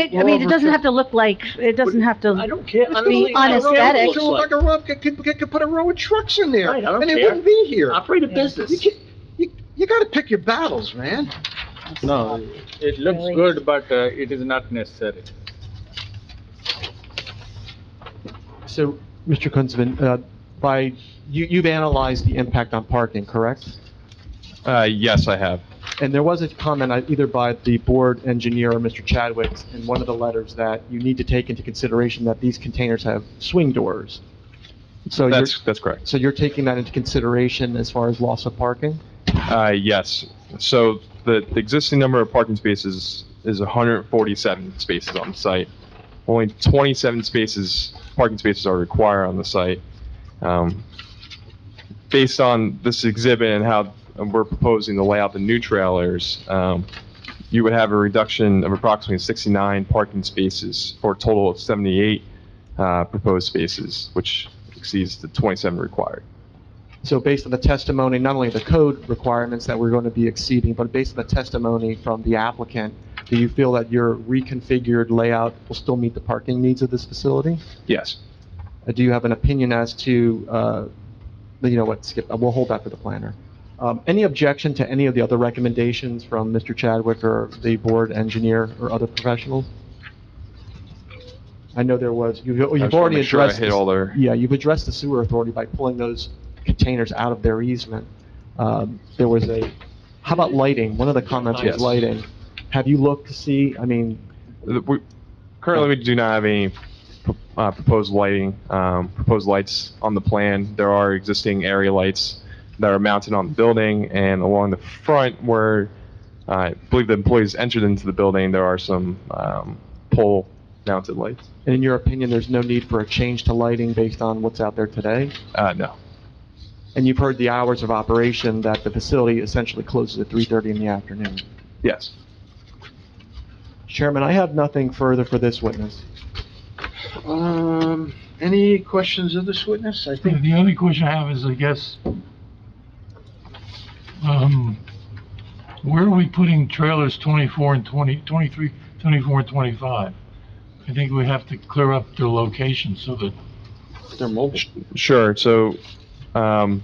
It- I mean, it doesn't have to look like, it doesn't have I to, don't care. I don't be really care what it unesthetic. looks It look like like. a row, could, could, could put a row of trucks in there, Right, I don't and it care. wouldn't be here. Operate a You business. can't, you, you gotta pick your battles, man. No, it looks Really? good, but uh, it is not necessary. So, Mr. Kunzman, uh, by, you, you've analyzed the impact on parking, correct? Uh, yes, I have. And there was a comment uh, either by the board engineer or Mr. Chadwick in one of the letters that you need to take into consideration that these containers have swing doors. So you're, That's, that's correct. so you're taking that into consideration as far as loss of parking? Uh, yes. So the, the existing number of parking spaces is 147 spaces on the site. Only 27 spaces, parking spaces are required on the site. Um, Based on this exhibit and how we're proposing to lay out the new trailers, um, you would have a reduction of approximately 69 parking spaces for a total of 78 uh, proposed spaces, which exceeds the 27 required. So based on the testimony, not only the code requirements that we're going to be exceeding, but based on the testimony from the applicant, do you feel that your reconfigured layout will still meet the parking needs of this facility? Yes. Uh, Do you have an opinion as to, uh, you know what, skip, uh, we'll hold that for the planner. Um, Any objection to any of the other recommendations from Mr. Chadwick or the board engineer or other professionals? I know there was, you've oh, I you've just wanna already make sure I addressed, hit this- all their- yeah, you've addressed the sewer authority by pulling those containers out of their easement. Um, There was a, how about lighting? One of the comments was Yes. lighting. Have you looked to see, I mean, The- we- Currently, we do not have any uh, proposed lighting, um, proposed lights on the plan. There are existing area lights that are mounted on the building, and along the front where uh, I believe the employees entered into the building, there are some um, pole-mounted lights. in your opinion, there's no need for a change to lighting based on what's out there today? Uh, No. And you've heard the hours of operation that the facility essentially closes at 3:30 in the afternoon. Yes. Chairman, I have nothing further for this witness. Um, any questions of this witness? I think, The only question I have is, I guess, um, where are we putting trailers 24 and 20, 23, 24 and 25? I think we have to clear up their location so that, They're mobile. Sure. So um,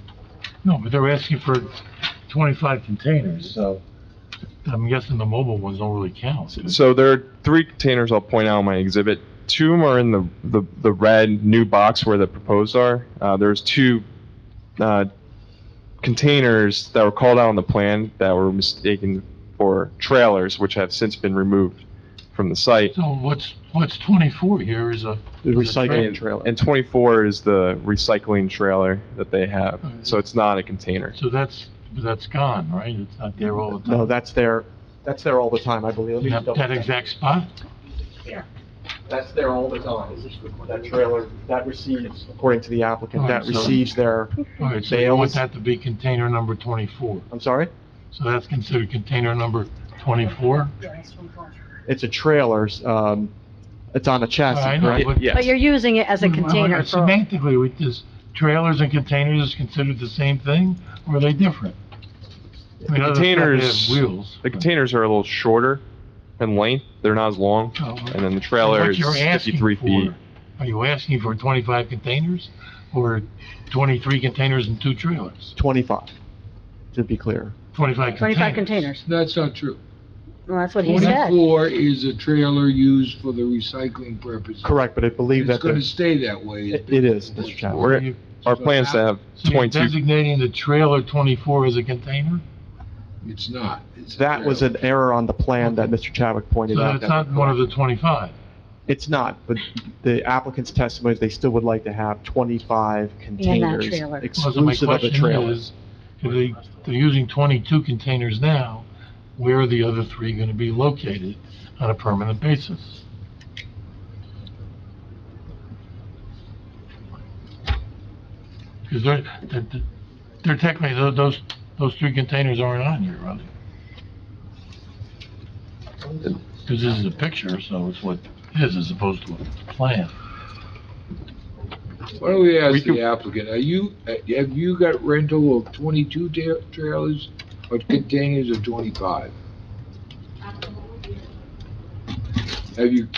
no, but they're asking for 25 containers, so I'm guessing the mobile ones don't really count. So there are three containers I'll point out on my exhibit. Two of them are in the, the, the red new box where the proposed are. Uh, there's two, uh, containers that were called out on the plan that were mistaken for trailers, which have since been removed from the site. So what's, what's 24 here is a, The recycling And trailer. and 24 is the recycling trailer that they have, Mm-hmm. so it's not a container. so that's, that's gone, right? It's not there all the No, time. that's there, that's there all the time, I believe. Let me That double that check. exact spot? That's there all the time. That trailer, that receives, according to the applicant, that Alright, so- receives their, All right, so They you want always- that to be container number 24. I'm sorry? So that's considered container number 24? It's a trailer, um, it's on a Oh, I chassis, know, correct? but- Yes. but you're using it as a container for, Semantically, with this, trailers and containers is considered the same thing, or are they different? I mean, other than that, they have Containers- Wheels. The containers are a little shorter in length, they're not as long, Oh, and then the trailer what is you're asking 53 feet. for- Are you asking for 25 containers, or 23 containers and two trailers? 25, to be clear. 25 twenty-five containers? containers. That's not true. Well, that's what he said. Twenty-four is a trailer used for the recycling purpose. Correct, but I believe It's that, gonna the- stay that way. it it is, Mr. Chadwick. We're, our plans to have So you're 22 designating the trailer 24 as a container? It's not. It's a That was trailer. an error on the plan that Mr. Chadwick pointed So out. it's that- not one of the 25? It's not, but the applicant's testimony is they still would like to have 25 containers trailer. Well, so my exclusive of a question trailer. is, if they, they're using 22 containers now, where are the other three going to be located on a permanent basis? Because they're, they're- they're technically, tho- those, those three containers aren't on here, are they? Because this is a picture, so it's what it is as opposed to a plan. Why don't we We ask can- the applicant, are you, uh, have you got rental of twenty-two ta- trailers or containers of twenty-five? Have you